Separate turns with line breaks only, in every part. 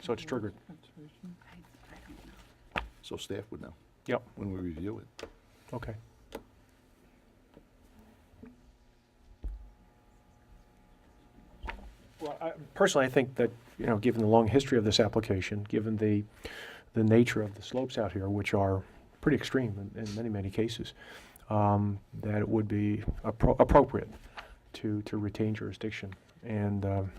so it's triggered.
So staff would know
Yep,
when we review it.
okay. Well, I- personally, I think that, you know, given the long history of this application, given the, the nature of the slopes out here, which are pretty extreme in, in many, many cases, um, that it would be appro- appropriate to, to retain jurisdiction. And um,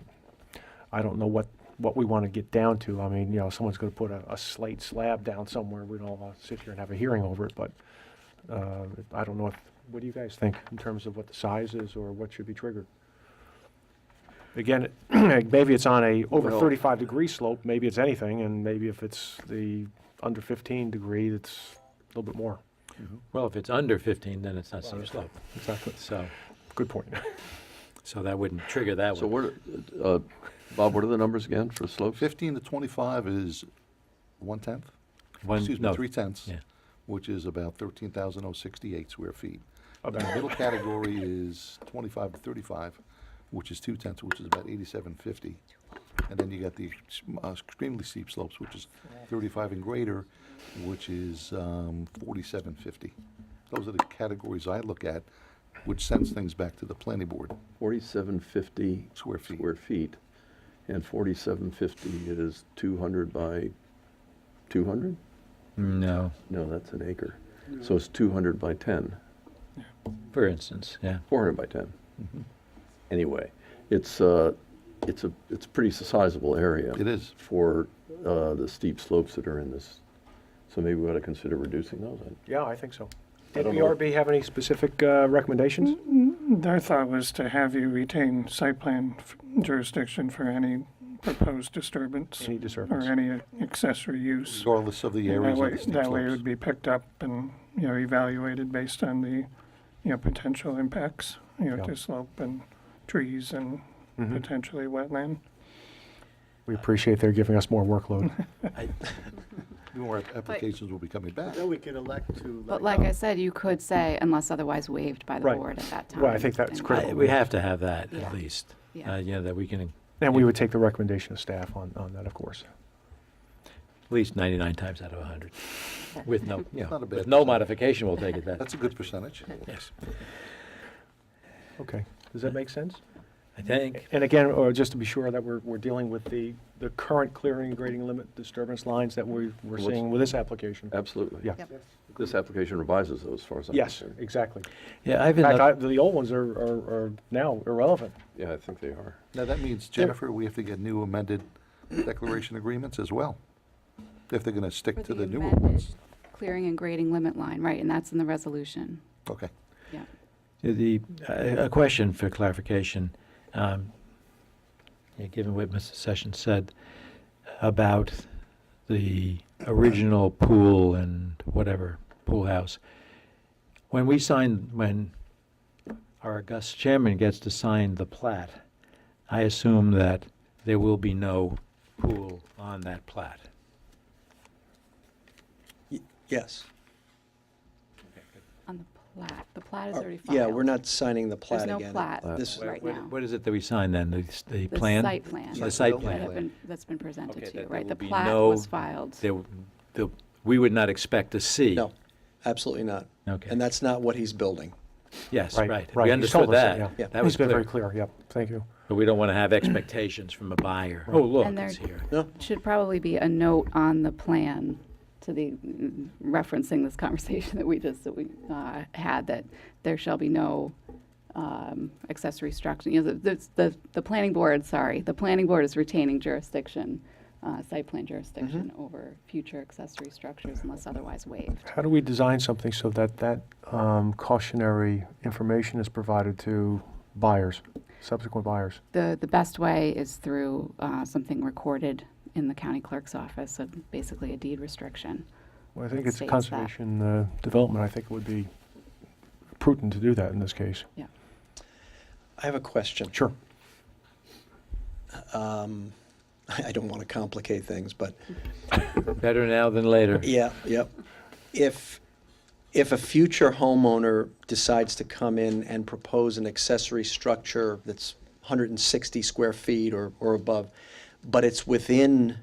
I don't know what, what we want to get down to. I mean, you know, someone's going to put a, a slate slab down somewhere. We don't want to sit here and have a hearing over it, but uh, I don't know if, what do you guys think in terms of what the size is or what should be triggered? Again, it- maybe it's on a over
Well-
35 degree slope, maybe it's anything, and maybe if it's the under 15 degree, it's a little bit more.
Well, if it's under 15, then it's not steep slope.
Exactly.
So,
Good point.
so that wouldn't trigger that
So
one.
what, are- uh, Bob, what are the numbers again for slopes?
Fifteen to twenty-five is one-tenth,
One-
excuse me,
no,
three-tenths,
Yeah,
which is about thirteen thousand oh sixty-eight square feet. The
About-
middle category is twenty-five to thirty-five, which is two-tenths, which is about eighty-seven fifty. And then you got the ex- uh, extremely steep slopes, which is thirty-five and greater, which is um, forty-seven fifty. Those are the categories I look at, which sends things back to the planning board.
Forty-seven fifty.
Square feet.
Square feet. And forty-seven fifty is two hundred by two hundred?
no,
No, that's an acre. So it's two hundred by ten.
for instance, yeah.
Four hundred by ten. Anyway, it's, uh, it's a, it's a pretty sizable area.
It is.
For, uh, the steep slopes that are in this. So maybe we ought to consider reducing those. I-
Yeah, I think so.
I
Did
don't know.
BRB have any specific uh, recommendations?
Their thought was to have you retain site plan f- jurisdiction for any proposed disturbance
Any
or
disturbance?
any accessory use.
regardless of the
And That
areas of
way,
the steep
that way it would
slopes.
be picked up and, you know, evaluated based on the, you know, potential impacts, you know,
Yeah.
to slope and trees and
Mm-hmm.
Mhm.
potentially wetland.
We appreciate they're giving us more workload.
I-
More app- applications will be coming back.
Then we could elect to.
But like I said, you could say unless otherwise waived by the
um, Right.
board at that time.
Well, I think that's
and-
critical.
I- We have to have that,
Yeah.
at least.
Yeah.
Uh, Yeah, that we can, at
And we would take the recommendation of staff on, on that, of course.
least 99 times out of 100, with no, you know, with
Not a bad
no
percentage.
modification, we'll take it that.
That's a good percentage.
Yes,
Okay, does that make sense?
I think,
And again, or just to be sure that we're, we're dealing with the, the current clearing and grading limit disturbance lines that we, we're
What's-
seeing with this application.
Absolutely.
Yeah.
Yep.
This application revises those, as far as I'm
Yes,
concerned.
exactly.
yeah,
In
Ivan,
fact, I,
uh,
the old ones are, are, are now irrelevant.
Yeah, I think they are.
Now, that means, Jennifer, we have to get new amended declaration agreements as well, if they're going to
For
stick to the newer
amended
ones.
Clearing and grading limit line, right, and that's in the resolution,
Okay.
yeah.
the, uh, a question for clarification. um, yeah, Given what Mr. Sessions said about the original pool and whatever, pool house, when we sign, when our august chairman gets to sign the plat, I assume that there will be no pool on that plat.
Yes.
On the plat, the plat is
Or-
already filed.
Yeah, we're not signing the plat
There's
again.
no plat
This-
right
What-
now.
What is it that we sign then, the, s- the
The
plan?
site plan.
The site
That have
plan.
been, that's been presented
Okay,
to you,
that there
right? The
will be
plat
no-
was filed.
There, the, we would not expect to see.
No, absolutely not.
Okay.
And that's not what he's building.
Yes,
Right,
right.
right.
We
He's
understood
told us that, yeah.
that.
Yeah.
That was
It's been very
clear.
clear, yep, thank you.
But we don't want to have expectations from a buyer. Oh, look,
And there-
it's here.
No,
Should probably be a note on the plan to the, mm, referencing this conversation that we just, that we uh, had, that there shall be no um, accessory structure, you know, the- the, the, the planning board, sorry, the planning board is retaining jurisdiction, uh, site plan jurisdiction over future accessory structures unless otherwise waived.
How do we design something so that that um, cautionary information is provided to buyers, subsequent buyers?
The, the best way is through uh, something recorded in the county clerk's office, so basically a deed restriction.
Well, I think
that
it's
states that.
conservation uh, development, I think it would be prudent to do that in this case.
Yeah.
I have a question.
Sure.
Um, I don't want to complicate things, but
Better now than later.
yeah, yep. If, if a future homeowner decides to come in and propose an accessory structure that's 160 square feet or, or above, but it's within